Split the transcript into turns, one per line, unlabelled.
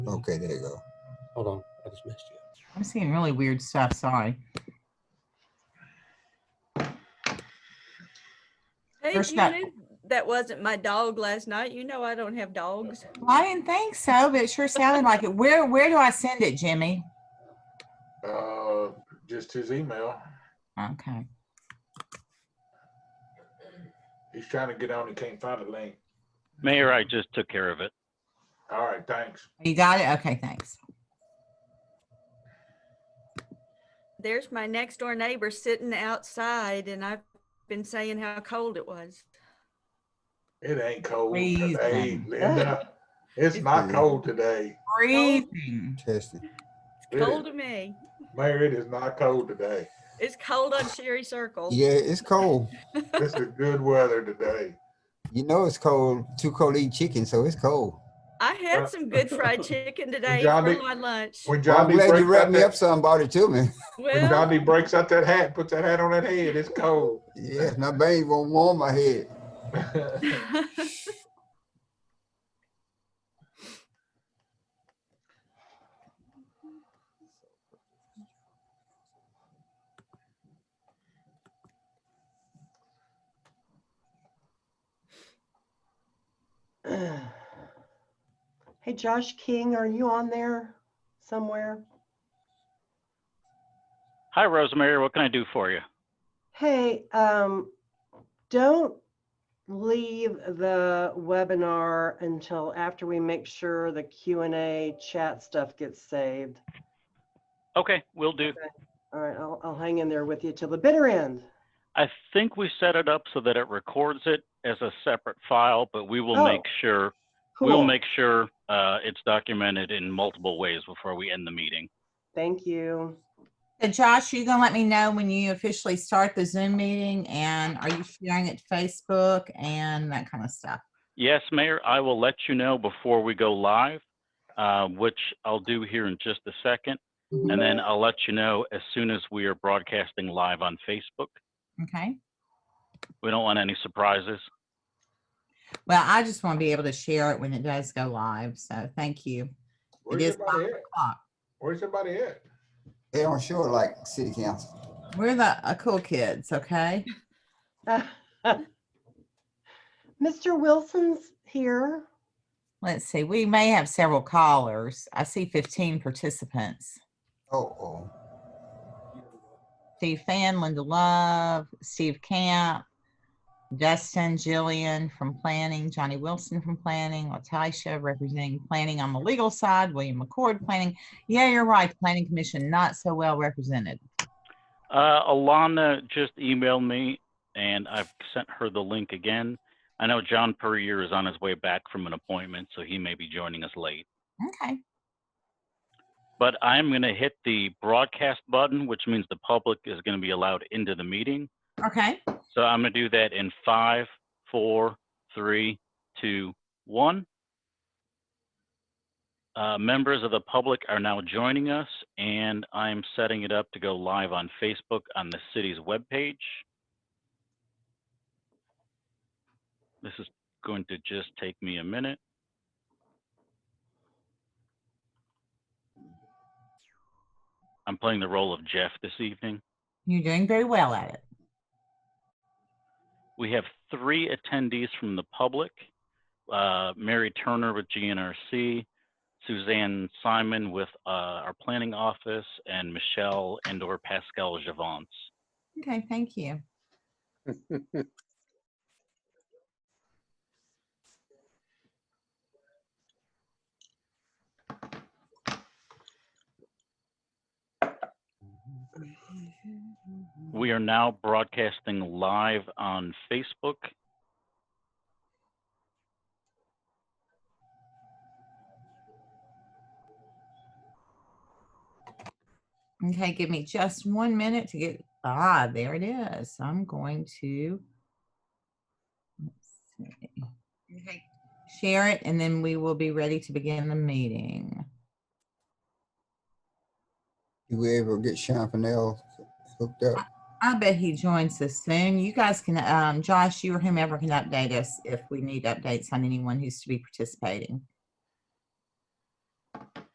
Okay, there you go.
Hold on, I just missed you.
I'm seeing really weird stuff, sorry.
Hey,
First
you
night.
knew that wasn't my dog last night. You know I don't have dogs.
Well, I didn't think so, but it sure sounded like it. Where, where do I send it, Jimmy?
Uh, just his email.
Okay,
He's trying to get on, he can't find the link.
Mayor, I just took care of it.
All right, thanks.
you got it? Okay, thanks.
There's my next door neighbor sitting outside and I've been saying how cold it was.
It ain't cold
Freezing.
today, Linda. It's not
Freezing.
cold today.
Breathing.
Test it.
It
It's cold
is-
to me.
Mayor, it is not cold today.
It's cold on Sherry Circle.
Yeah, it's cold.
This is good weather today.
You know it's cold. Too cold to eat chicken, so it's cold.
I had some good fried chicken today
Johnny-
for my lunch.
When
Well, I'm
Johnny
glad you
breaks
wrapped
out
me up
that,
some, brought it to me.
when
Well,
Johnny breaks out that hat, puts that hat on that head, it's cold.
Yes, my veins won't warm my head.
Ugh. Hey, Josh King, are you on there somewhere?
Hi, Rosemary. What can I do for you?
Hey, um, don't leave the webinar until after we make sure the Q and A chat stuff gets saved.
Okay, will do.
All right, I'll, I'll hang in there with you till the bitter end.
I think we set it up so that it records it as a separate file, but we will
Oh,
make sure, we'll
Cool.
make sure uh, it's documented in multiple ways before we end the meeting.
Thank you.
So Josh, you gonna let me know when you officially start the Zoom meeting and are you sharing it to Facebook and that kind of stuff?
Yes, Mayor, I will let you know before we go live, uh, which I'll do here in just a second. And then I'll let you know as soon as we are broadcasting live on Facebook.
Okay,
We don't want any surprises.
well, I just want to be able to share it when it does go live, so thank you. It
Where's
is five
everybody at?
o'clock.
Where's everybody at?
They don't show it like city council.
We're the uh, cool kids, okay?
Mr. Wilson's here.
Let's see, we may have several callers. I see fifteen participants.
Oh, oh.
Steve Fan, Linda Love, Steve Camp, Dustin, Jillian from Planning, Johnny Wilson from Planning, Latisha representing Planning on the legal side, William McCord Planning. Yeah, you're right, Planning Commission not so well represented.
Uh, Alana just emailed me and I've sent her the link again. I know John Perrier is on his way back from an appointment, so he may be joining us late.
Okay,
But I'm going to hit the broadcast button, which means the public is going to be allowed into the meeting.
okay.
So I'm going to do that in five, four, three, two, one. Uh, members of the public are now joining us, and I'm setting it up to go live on Facebook on the city's webpage. This is going to just take me a minute. I'm playing the role of Jeff this evening.
You're doing very well at it.
We have three attendees from the public. uh, Mary Turner with GNRC, Suzanne Simon with uh, our planning office, and Michelle and or Pascal Javance.
Okay, thank you.
We are now broadcasting live on Facebook.
Okay, give me just one minute to get, ah, there it is. I'm going to. let's see. Okay, Share it and then we will be ready to begin the meeting.
You were able to get Sean Fennell hooked up.
I bet he joins us soon. You guys can, um, Josh, you or whomever can update us if we need updates on anyone who's to be participating.